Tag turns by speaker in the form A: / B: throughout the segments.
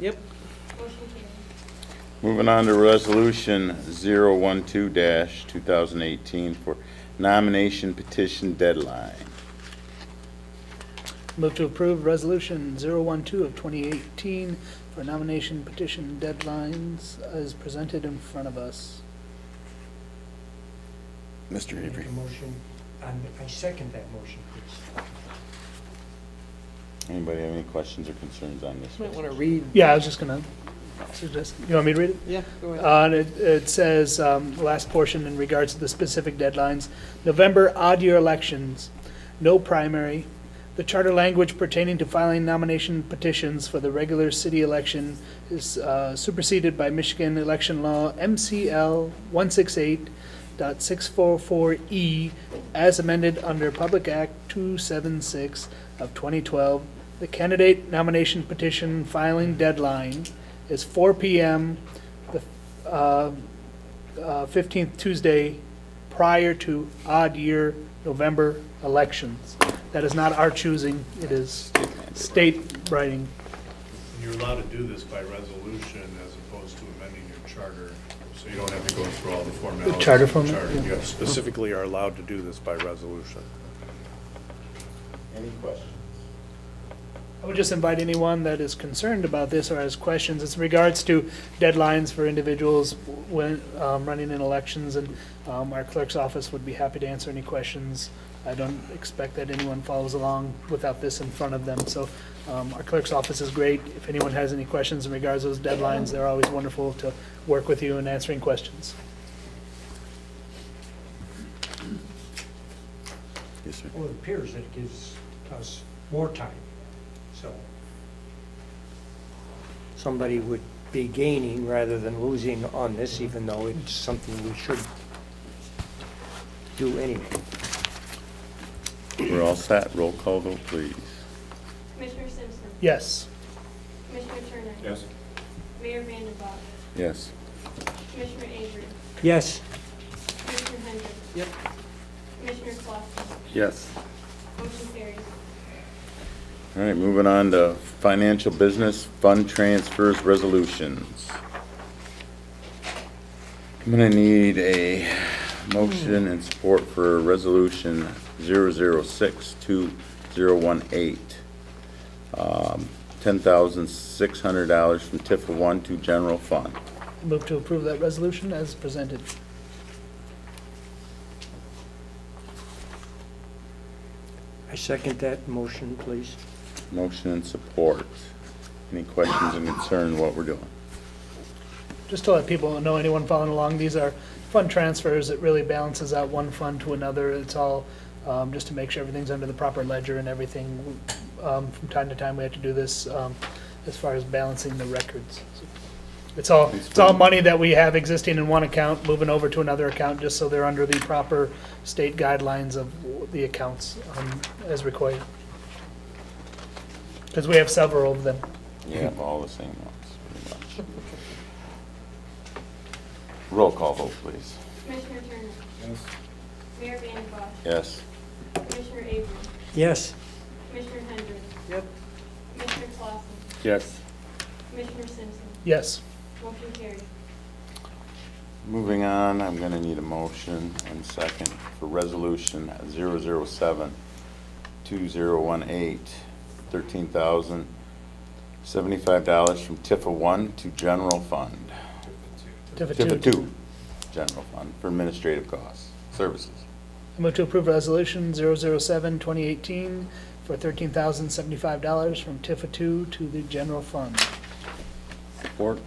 A: Yep.
B: Moving on to Resolution 012-2018 for nomination petition deadline.
A: Move to approve Resolution 012 of 2018 for nomination petition deadlines as presented in front of us.
B: Mr.
C: Make a motion, and I second that motion, please.
B: Anybody have any questions or concerns on this?
D: Might want to read.
A: Yeah, I was just gonna suggest, you want me to read it?
D: Yeah, go ahead.
A: Uh, and it, it says, um, the last portion in regards to the specific deadlines, November odd year elections, no primary, the charter language pertaining to filing nomination petitions for the regular city election is, uh, superseded by Michigan election law MCL 168.644 E as amended under Public Act two seven six of twenty twelve. The candidate nomination petition filing deadline is four P M uh, uh, 15th Tuesday prior to odd year November elections. That is not our choosing, it is state writing.
E: You're allowed to do this by resolution as opposed to amending your charter, so you don't have to go through all the formalities. of
A: charter
E: the
A: format,
E: charter.
A: yeah.
E: You specifically are allowed to do this by resolution.
B: Any questions?
A: I would just invite anyone that is concerned about this or has questions, it's in regards to deadlines for individuals when, um, running in elections, and, um, our clerk's office would be happy to answer any questions. I don't expect that anyone follows along without this in front of them, so, um, our clerk's office is great. If anyone has any questions in regards to those deadlines, they're always wonderful to work with you in answering questions.
B: Yes, sir.
C: Well, it appears that it gives us more time, so. Somebody would be gaining rather than losing on this, even though it's something we should do anyway.
B: We're all set. Roll call vote, please.
F: Commissioner Simpson.
A: Yes,
F: Commissioner Turner. Mayor Vandenbach.
B: Yes.
F: Commissioner Avery.
C: Yes,
F: Commissioner Hendrick.
D: Yep.
F: Commissioner Clausen.
B: Yes.
F: Motion carries.
B: All right, moving on to financial business fund transfers resolutions. I'm gonna need a motion and support for resolution 0062018. Um, $10,600 from TIF 1 to general fund.
A: move to approve that resolution as presented.
C: I second that motion, please.
B: Motion and support. Any questions and concern what we're doing?
A: just to let people know, anyone following along, these are fund transfers. It really balances out one fund to another. It's all um, just to make sure everything's under the proper ledger and everything. Um, From time to time, we have to do this um, as far as balancing the records. It's all, it's all money that we have existing in one account, moving over to another account, just so they're under the proper state guidelines of the accounts um, as required. Because we have several of them.
B: Yeah, all the same ones, pretty much. Roll call vote, please.
F: Commissioner Turner. Mayor Vandenbach.
B: Yes.
F: Commissioner Avery.
C: Yes,
F: Commissioner Hendrick.
D: Yep.
F: Commissioner Clausen.
B: Yes.
F: Commissioner Simpson.
A: Yes.
F: Motion carries.
B: Moving on, I'm going to need a motion and second for Resolution 007-2018, $13,075 from TIFA 1 to General Fund. TIFA 2, General Fund, for administrative costs, services.
A: I move to approve Resolution 007, 2018, for $13,075 from TIFA 2 to the general fund.
B: Support.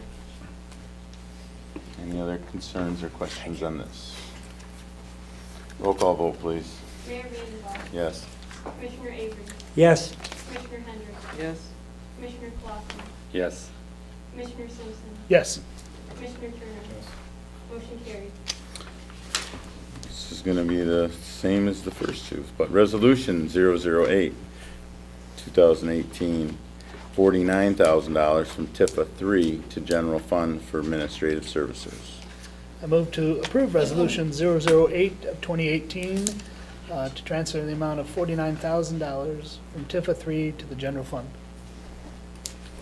B: Any other concerns or questions on this? Roll call vote, please.
F: Mayor Vandenbach.
B: Yes.
F: Commissioner Avery.
C: yes,
F: Commissioner Hendrick.
D: Yes.
F: Commissioner Clausen.
B: Yes.
F: Commissioner Simpson.
A: Yes.
F: Commissioner Turner. Motion carries.
B: This is going to be the same as the first two, but Resolution 008, 2018, $49,000 from TIFA 3 to General Fund for Administrative Services.
A: I move to approve Resolution 008 of 2018 uh, to transfer the amount of $49,000 from TIFA 3 to the general fund.